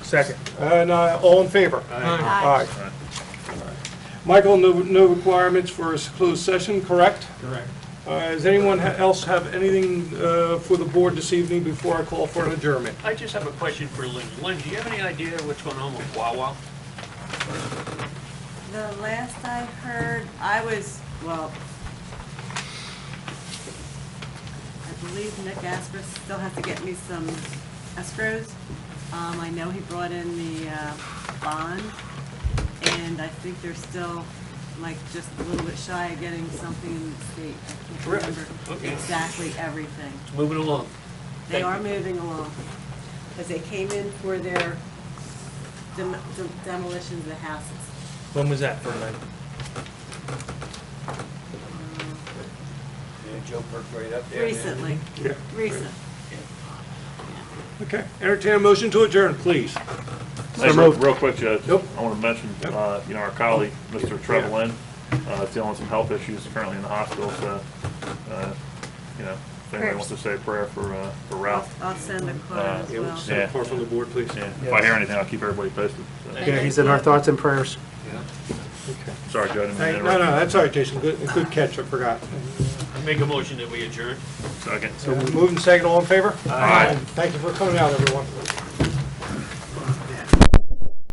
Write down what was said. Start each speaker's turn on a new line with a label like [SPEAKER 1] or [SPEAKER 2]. [SPEAKER 1] Second.
[SPEAKER 2] And uh, all in favor?
[SPEAKER 3] Aye.
[SPEAKER 2] Aye. Michael, no, no requirements for a closed session, correct?
[SPEAKER 1] Correct.
[SPEAKER 2] Uh, Does anyone ha- else have anything uh, for the board this evening before I call for an adjournment?
[SPEAKER 4] I just have a question for Lynn. Lynn, do you have any idea what's going on with Wawa?
[SPEAKER 3] The last I heard, I was, well, I believe Nick Asper still has to get me some escrows. Um, I know he brought in the, uh, bond, and I think they're still, like, just a little bit shy of getting something in the state. I can't
[SPEAKER 4] Terrific.
[SPEAKER 3] remember
[SPEAKER 4] Okay.
[SPEAKER 3] exactly everything.
[SPEAKER 4] Moving along.
[SPEAKER 3] They
[SPEAKER 4] Thank
[SPEAKER 3] are
[SPEAKER 4] you.
[SPEAKER 3] moving along, because they came in for their dem- dem- demolition of the houses.
[SPEAKER 1] When was that, Vernon?
[SPEAKER 5] Joe Perk right up there. man.
[SPEAKER 3] Recently,
[SPEAKER 2] Yeah.
[SPEAKER 3] recent.
[SPEAKER 2] Okay, entertain a motion to adjourn, please.
[SPEAKER 6] Hey,
[SPEAKER 2] So
[SPEAKER 6] real-
[SPEAKER 2] moved.
[SPEAKER 6] Real quick, Judge,
[SPEAKER 2] Yep.
[SPEAKER 6] I want to mention,
[SPEAKER 2] Yep.
[SPEAKER 6] uh, you know, our colleague, Mr. Trevor Lynn, uh, is dealing with some health issues currently in the hospital, so, uh, you know, if anybody wants to say a prayer for, uh, for
[SPEAKER 3] I'll
[SPEAKER 6] Ralph.
[SPEAKER 3] I'll send a quote as
[SPEAKER 6] Yeah,
[SPEAKER 3] well.
[SPEAKER 2] Send a card from the board, please.
[SPEAKER 6] Yeah, If I hear anything, I'll keep everybody posted. so.
[SPEAKER 1] Yeah, he's in our thoughts and prayers.
[SPEAKER 6] Sorry, Judge, I didn't mean to
[SPEAKER 2] Hey, No, no,
[SPEAKER 6] interrupt.
[SPEAKER 2] that's all right, Jason, good, good catch, I forgot.
[SPEAKER 4] I make a motion that we adjourn.
[SPEAKER 6] Second.
[SPEAKER 2] Moving second, all in favor?
[SPEAKER 6] Aye.
[SPEAKER 2] Thank you for coming out, everyone.